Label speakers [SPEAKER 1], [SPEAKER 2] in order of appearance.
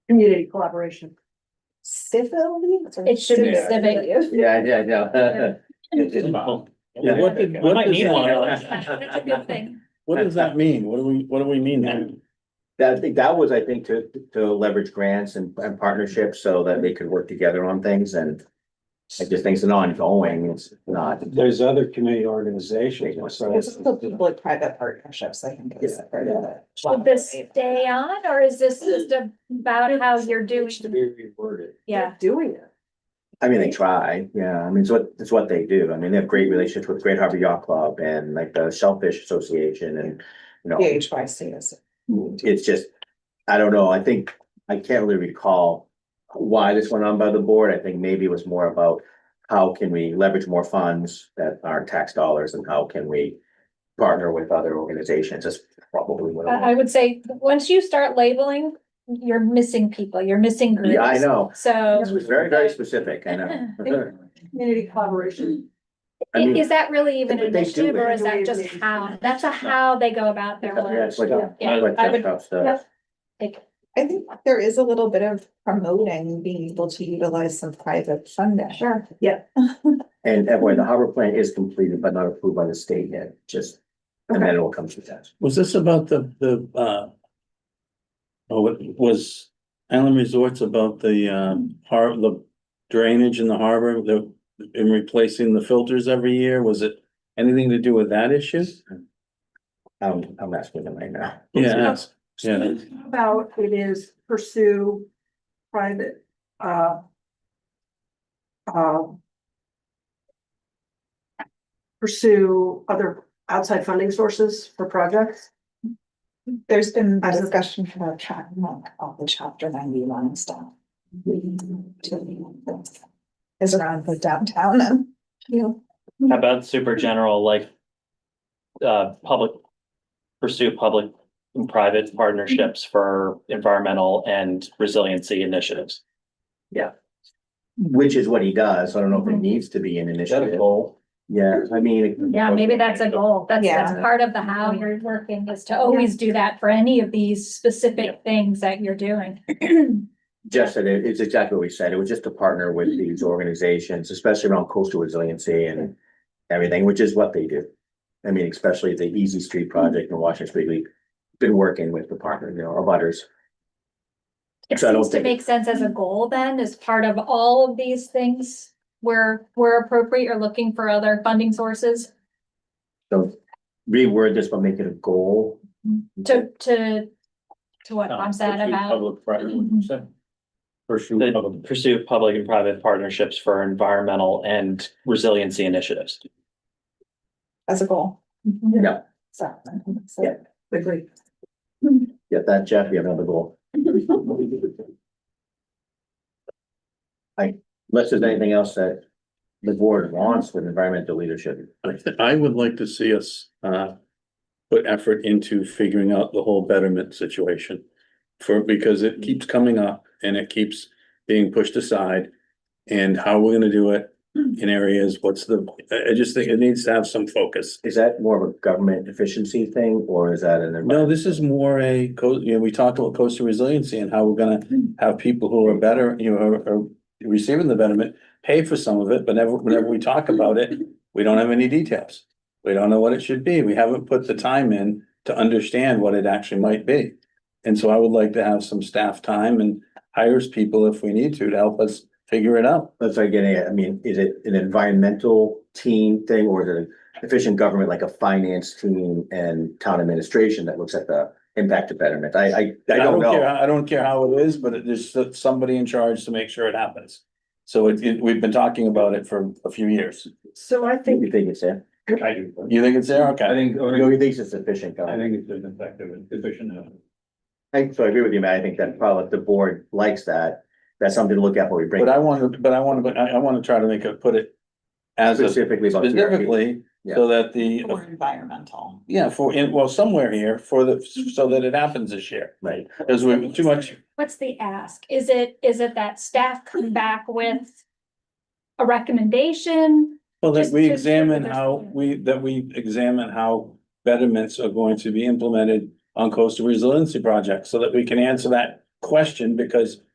[SPEAKER 1] community collaboration.
[SPEAKER 2] Civility?
[SPEAKER 3] It should be
[SPEAKER 4] Yeah.
[SPEAKER 3] civic.
[SPEAKER 4] Yeah, I did, yeah. It did.
[SPEAKER 5] Yeah, what did,
[SPEAKER 4] I
[SPEAKER 5] what
[SPEAKER 6] might
[SPEAKER 5] does
[SPEAKER 6] need
[SPEAKER 5] that,
[SPEAKER 3] That's a good thing.
[SPEAKER 5] what does that mean? What do we, what do we mean then?
[SPEAKER 4] That, I think that was, I think, to, to leverage grants and, and partnerships so that they could work together on things and I just think it's an ongoing, it's not.
[SPEAKER 6] There's other community organizations, so
[SPEAKER 2] There's also people like private partnerships, I think is part of it.
[SPEAKER 3] Should this stay on or is this just about how you're doing?
[SPEAKER 6] to be reworded.
[SPEAKER 3] Yeah,
[SPEAKER 1] Doing it.
[SPEAKER 4] I mean, they try, yeah, I mean, it's what, it's what they do. I mean, they have great relationships with Great Harbor Yacht Club and like the Shellfish Association and, you know,
[SPEAKER 2] The H Y C is.
[SPEAKER 4] it's just, I don't know, I think, I can't really recall why this went on by the board. I think maybe it was more about how can we leverage more funds that aren't tax dollars and how can we partner with other organizations? That's probably what. it
[SPEAKER 3] I, I
[SPEAKER 4] was.
[SPEAKER 3] would say, once you start labeling, you're missing people, you're missing groups.
[SPEAKER 4] Yeah, I know.
[SPEAKER 3] So
[SPEAKER 4] It was very, very specific, I know.
[SPEAKER 1] Community collaboration.
[SPEAKER 4] I
[SPEAKER 3] i-
[SPEAKER 4] mean-
[SPEAKER 3] is that really even
[SPEAKER 4] But
[SPEAKER 3] an
[SPEAKER 4] they do
[SPEAKER 3] initiative or
[SPEAKER 4] it.
[SPEAKER 3] is that just how? That's a how they go about their
[SPEAKER 4] Yeah,
[SPEAKER 3] work.
[SPEAKER 4] it's like.
[SPEAKER 3] Yeah,
[SPEAKER 4] like
[SPEAKER 3] I would-
[SPEAKER 4] tough stuff.
[SPEAKER 3] Like,
[SPEAKER 2] I think there is a little bit of promoting being able to utilize some private funding.
[SPEAKER 3] Sure.
[SPEAKER 4] And that way, the harbor plan is completed but not approved by the state yet, just, and then it will come to that.
[SPEAKER 5] Was this about the, the, uh, oh, it was Island Resorts about the, um, har, the drainage in the harbor, the, in replacing the filters every year? Was it anything to do with that issue?
[SPEAKER 4] I'm, I'm asking them right now.
[SPEAKER 5] Yeah, that's- yeah.
[SPEAKER 1] About it is pursue private, uh. um, Pursue other outside funding sources for projects.
[SPEAKER 2] There's been
[SPEAKER 1] I-
[SPEAKER 2] discussion about tracking like all the chapter ninety-one stuff. Is around the downtown and, you know,
[SPEAKER 6] How about super general, like, uh, public, pursue public and private partnerships for environmental and resiliency initiatives?
[SPEAKER 4] Which is what he does. I don't know if it
[SPEAKER 3] Mm-hmm.
[SPEAKER 4] needs to be an initiative. Yeah, I mean.
[SPEAKER 3] Yeah, maybe that's a goal. That's, that's
[SPEAKER 2] Yeah.
[SPEAKER 3] part of the how you're working is to always do that for any of these
[SPEAKER 6] Yeah.
[SPEAKER 3] specific things that you're doing.
[SPEAKER 4] Just that it- it's exactly what we said. It was just to partner with
[SPEAKER 3] Mm-hmm.
[SPEAKER 4] these organizations, especially around coastal resiliency and everything, which is what they do. I mean, especially the Easy Street Project in Washington Street, we've been working with the partner, you know, our butters.
[SPEAKER 3] It
[SPEAKER 4] So I don't
[SPEAKER 3] seems to
[SPEAKER 4] think-
[SPEAKER 3] make sense as a goal then, as part of all of these things where, where appropriate, you're looking for other funding sources
[SPEAKER 4] So reword this, but make it a goal.
[SPEAKER 3] to, to, to what Tom said about.
[SPEAKER 5] Public. Pursue
[SPEAKER 6] That
[SPEAKER 5] public.
[SPEAKER 6] pursue public and private partnerships for environmental and resiliency initiatives.
[SPEAKER 2] as a goal,
[SPEAKER 3] Mhm.
[SPEAKER 4] Yeah,
[SPEAKER 2] so. so-
[SPEAKER 4] Yeah.
[SPEAKER 1] Agree.
[SPEAKER 4] get that, Jeff. You have another goal. I, unless there's anything else that the board wants with environmental leadership.
[SPEAKER 5] I, th- I would like to see us, uh, put effort into figuring out the whole betterment situation. For, because it keeps coming up and it keeps being pushed aside. And how we're gonna do it in areas, what's the, I, I just think it needs to have some focus.
[SPEAKER 4] Is that more of a government efficiency thing or is that an?
[SPEAKER 5] No, this is more a, co- you know, we talked about coastal resiliency and how we're gonna have people who are better, you know, are, are receiving the betterment, pay for some of it, but never, whenever we talk about it, we don't have any details. We don't know what it should be. We haven't put the time in to understand what it actually might be. And so I would like to have some staff time and hires people if we need to, to help us figure it out.
[SPEAKER 4] That's what I'm getting at. I mean, is it an environmental team thing or is it an efficient government, like a finance team and town administration that looks at the impact of betterment? I, I, I don't
[SPEAKER 5] care-
[SPEAKER 4] know.
[SPEAKER 5] I don't care how it is, but it- there's s- somebody in charge to make sure it happens. So it, it, we've been talking about it for a few years.
[SPEAKER 1] So I think
[SPEAKER 4] You think it's there?
[SPEAKER 7] I do. but
[SPEAKER 5] You think it's there? Okay.
[SPEAKER 7] I think,
[SPEAKER 4] You think it's efficient
[SPEAKER 7] I
[SPEAKER 4] government?
[SPEAKER 7] think it's an effective and efficient. uh,
[SPEAKER 4] I, so I agree with you, Matt. I think that probably the board likes that. That's something to look at when we bring.
[SPEAKER 5] But I want to, but I want to, I, I want to try to make it, put it as a
[SPEAKER 4] Specifically about PRP.
[SPEAKER 5] specifically, so that the,
[SPEAKER 2] Or environmental.
[SPEAKER 5] yeah, for, in, well, somewhere here for the, so that it happens this year.
[SPEAKER 4] Right.
[SPEAKER 5] Cause we, too much,
[SPEAKER 3] What's the ask? Is it, is it that staff come back with a recommendation?
[SPEAKER 5] well, that
[SPEAKER 3] Just
[SPEAKER 5] we
[SPEAKER 3] to-
[SPEAKER 5] examine how we, that we examine how betterments are going to be implemented on coastal resiliency projects, so that we can answer that question because